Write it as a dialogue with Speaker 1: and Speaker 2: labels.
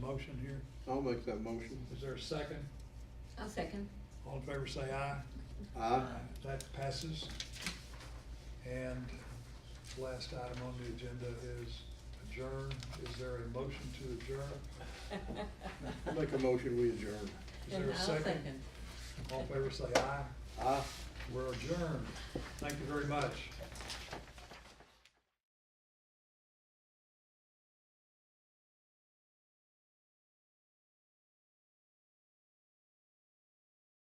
Speaker 1: motion here?
Speaker 2: I'll make that motion.
Speaker 1: Is there a second?
Speaker 3: I'll second.
Speaker 1: All in favor say aye.
Speaker 2: Aye.
Speaker 1: That passes. And last item on the agenda is adjourn. Is there a motion to adjourn?
Speaker 2: I'll make a motion, we adjourn.
Speaker 1: Is there a
Speaker 3: I'll
Speaker 1: second? All in favor say aye.
Speaker 2: Aye.
Speaker 1: We're adjourned. Thank you very much.